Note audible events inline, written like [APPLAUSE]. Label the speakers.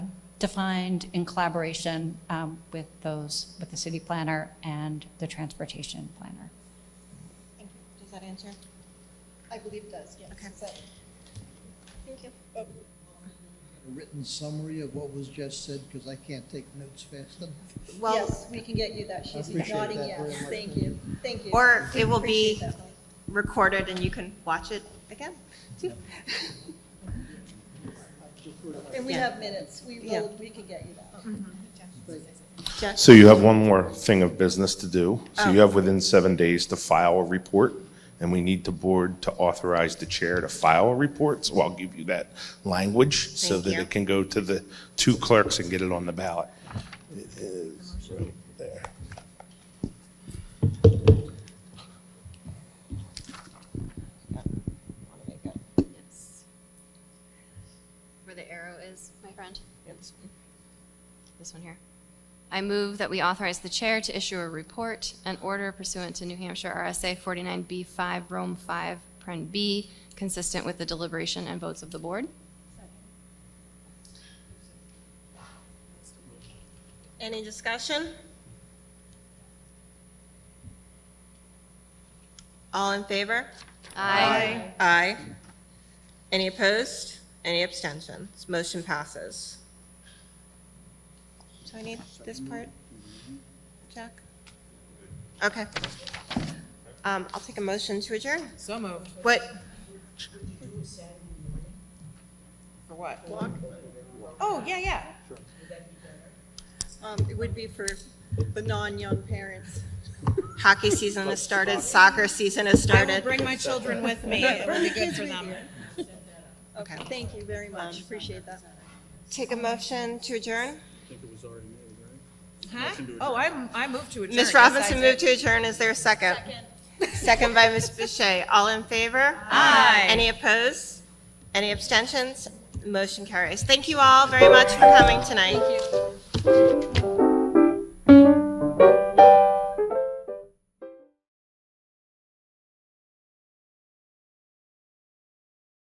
Speaker 1: defined in collaboration um, with those, with the city planner and the transportation planner.
Speaker 2: Thank you. Does that answer?
Speaker 3: I believe it does, yes. oh,
Speaker 2: Okay.
Speaker 3: Is that-
Speaker 2: Thank you.
Speaker 4: a written summary of what was just said, because I can't take notes fast enough.
Speaker 2: Well,
Speaker 3: Yes, we can get you that. She's
Speaker 4: appreciate
Speaker 3: nodding
Speaker 4: that very
Speaker 3: yes.
Speaker 4: much.
Speaker 3: Thank you, thank you.
Speaker 2: or it will
Speaker 3: Appreciate
Speaker 2: be
Speaker 3: that, Mike.
Speaker 2: recorded and you can watch it again. [LAUGHS]
Speaker 3: And we
Speaker 2: Yeah.
Speaker 3: have minutes. We
Speaker 2: Yeah.
Speaker 3: will, we can get you
Speaker 5: Uh-huh.
Speaker 3: that.
Speaker 2: Judge?
Speaker 6: So you have one more thing of business to do. So
Speaker 2: Oh.
Speaker 6: you have within seven days to file a report, and we need the board to authorize the chair to file a report. So I'll give you that language so
Speaker 2: Thank
Speaker 6: that
Speaker 2: you.
Speaker 6: it can go to the two clerks and get it on the ballot. It is right there.
Speaker 7: Yes. Where the arrow is, my friend? This one here. I move that we authorize the chair to issue a report and order pursuant to New Hampshire RSA 49B5, Rome 5, Pren B, consistent with the deliberation and votes of the board.
Speaker 2: Any discussion? All in favor?
Speaker 7: Aye.
Speaker 2: Aye. Any opposed? Any abstentions? Motion passes. So I need this part, Jack? Okay. Um, I'll take a motion to adjourn.
Speaker 5: So moved.
Speaker 2: What?
Speaker 5: For what? Oh, yeah, yeah.
Speaker 3: Um, It would be for the non-young parents.
Speaker 2: Hockey season has started, soccer season has
Speaker 5: I will
Speaker 2: started.
Speaker 5: bring my children with me. It will be good for them.
Speaker 3: [LAUGHS] Okay, thank you very much. Appreciate that.
Speaker 2: Take a motion to adjourn.
Speaker 5: Huh? Oh, I, I moved to adjourn.
Speaker 2: Ms.
Speaker 5: Yes,
Speaker 2: Robinson
Speaker 5: I
Speaker 2: moved
Speaker 5: did.
Speaker 2: to adjourn. Is there a second? Second by Ms. Boucher. All in favor? Aye. Any opposed? Any abstentions? Motion carries. Thank you all very much for coming tonight.